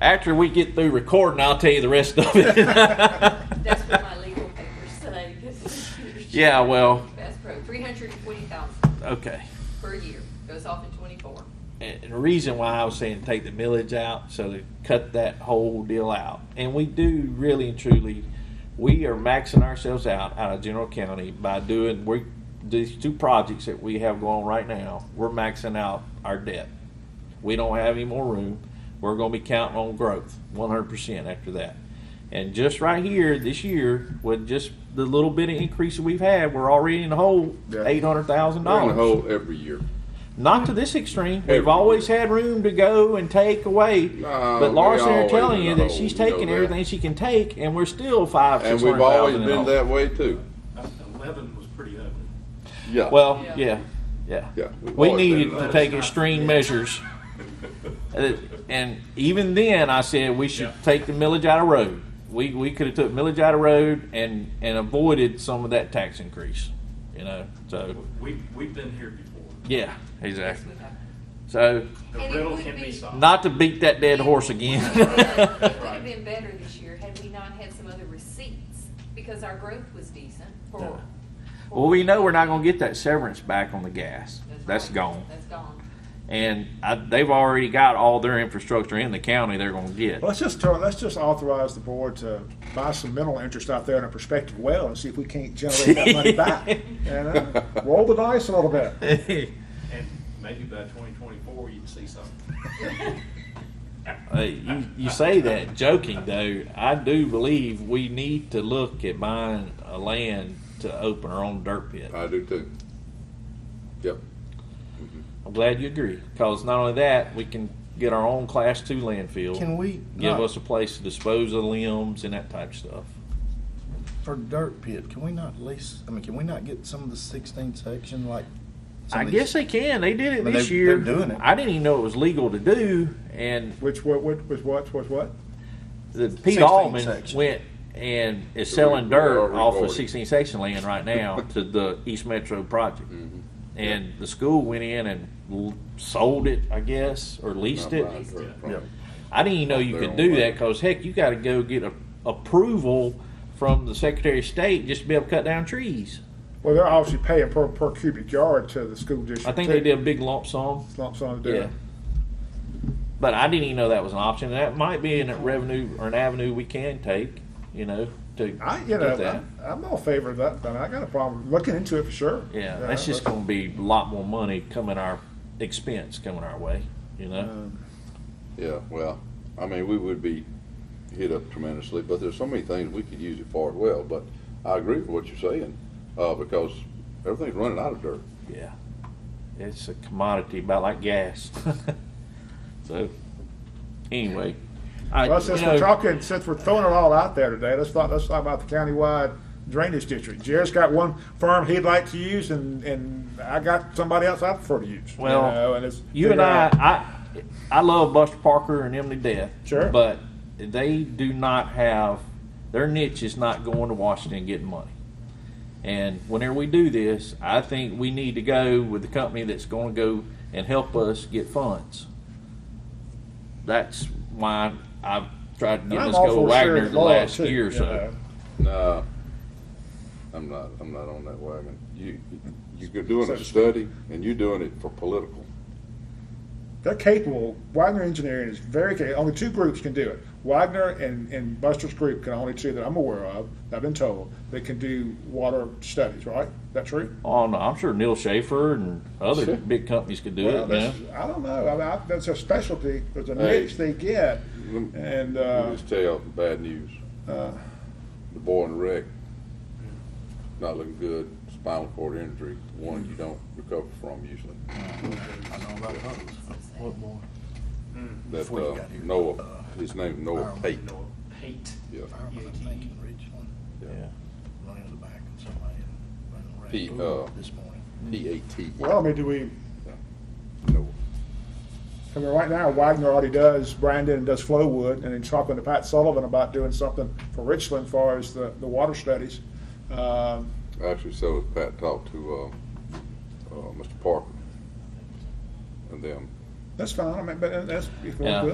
After we get through recording, I'll tell you the rest of it. That's what my legal papers say. 'cause it's- Yeah, well- Best pro, three hundred and twenty thousand okay. per year, goes off in twenty-four. And the reason why I was saying take the millage out, so to cut that whole deal out. And we do really and truly, we are maxing ourselves out out of General County by doing we these two projects that we have going right now. We're maxing out our debt. We don't have any more room. We're going to be counting on growth, 100% after that. And just right here this year, with just the little bit of increase that we've had, we're already in the hole, Yeah. eight hundred thousand We're in dollars. the hole every year. Not to this extreme. Every We've always had room to go and take away. No, but Laura's we here always telling been you a that hole. she's You know taking that. everything she can take, and we're still five, And six we've hundred always thousand. in the been hole. that way too. Eleven was pretty ugly. Yeah. Well, Yeah. yeah, yeah. Yeah, we've We always been needed that to way. take extreme measures. Uh, And even then, I said we should Yeah. take the millage out of road. We, we could have took millage out of road and, and avoided some of that tax increase, you know, so, We, we've been here before. yeah, exactly. So, The And it riddle would can be be- solved. not to beat that dead horse again. It would have been better this year had we not had some other receipts, because our growth was decent for. Well, we know we're not going to get that severance back on the gas. That's right. gone. That's gone. And I, they've already got all their infrastructure in the county they're going to get. Let's just tell, let's just authorize the board to buy some mental interest out there in a prospective well and see if we can't generate that money back. And, uh, roll the dice a little bit. And maybe by twenty twenty-four, you can see something. Uh, you, you say that joking, though. I do believe we need to look at buying a land to open our own dirt pit. I do too. Yep. I'm glad you agree. Because not only that, we can get our own Class 2 landfill. Can we Give not- us a place to dispose of limbs and that type of stuff. For dirt pit, can we not lease, I mean, can we not get some of the sixteen section like? some I of these- guess they can. They did it Well, this they- year. they're doing it. I didn't even know it was legal to do, and Which, what, what, was what, was what? the 16 Pete Allman section. went and is So selling we- we are dirt off of rewarded. 16 section land right now to the East Metro project. Mm-hmm. And the school went in and l- sold it, I guess, or leased Not it. buying dirt from Yeah. it. I didn't even know you Their could own do that land. because heck, you got to go get a, approval from the Secretary of State just to be able to cut down trees. Well, they're obviously paying per, per cubic yard to the school district. I think they too. did a big lump sum. Lump sum to do Yeah. it. But I didn't even know that was an option. And that might be an revenue or an avenue we can take, you know, to I, you get know, that. I'm, I'm all favor of that, but I got a problem looking into it for sure. Uh, yeah, You know, that's just but- going to be a lot more money coming our expense coming our way, you know. Uh-huh. Yeah, well, I mean, we would be hit up tremendously, but there's so many things we could use it for as well, but I agree with what you're saying, uh, because everything's running out of dirt. yeah, it's a commodity about like gas. so anyway, I Well, you since know, we're talking, since we're throwing it all out there today, let's talk, let's talk about the countywide drainage district. Jerry's got one firm he'd like to use and, and I got somebody else I prefer to use. you Well, know, and it's uh, You and figure I, out- I, I love Buster Parker and Emily Death. Sure. But they do not have their niche is not going to Washington and getting money. And whenever we do this, I think we need to go with the company that's going to go and help us get funds. That's why I've tried to and get I'm us all go for sharing Wagner the law, last too, year or you so. know. No, I'm not, I'm not on that wagon. You, you're doing a study and you're doing it for political. They're capable, Wagner Engineering is very capable, only two groups can do it. Wagner and, and Buster's group can only two that I'm aware of, that I've been told, that can do water studies, right? That true? Oh, no, I'm sure Neil Schaefer and other Sure. big companies could do Well, it. Yeah. that's, I don't know, I mean, I, that's a specialty, there's a Hey. niche they get Mm-hmm. and, Let me uh, just tell you bad news. uh, The boy in the wreck, not looking good, spinal cord injury, one you don't recover from usually. I know about those. What more? That, Before you uh, got here. Noah, his name Noah Ireland. Pate. No, hate. Yeah, I remember that thing in Ridgeland, yeah. running to the back and somebody running around. He, uh, This morning. P A T. E. well, I mean, do we, Noah. I mean, right now Wagner already does Brandon and does Flowwood, and then talking to Pat Sullivan about doing something for Richland as far as the, the water studies. Um, Actually, so was Pat talked to, uh, uh, Mr. Parker. And them, that's fine. I mean, but that's if we Yeah. want to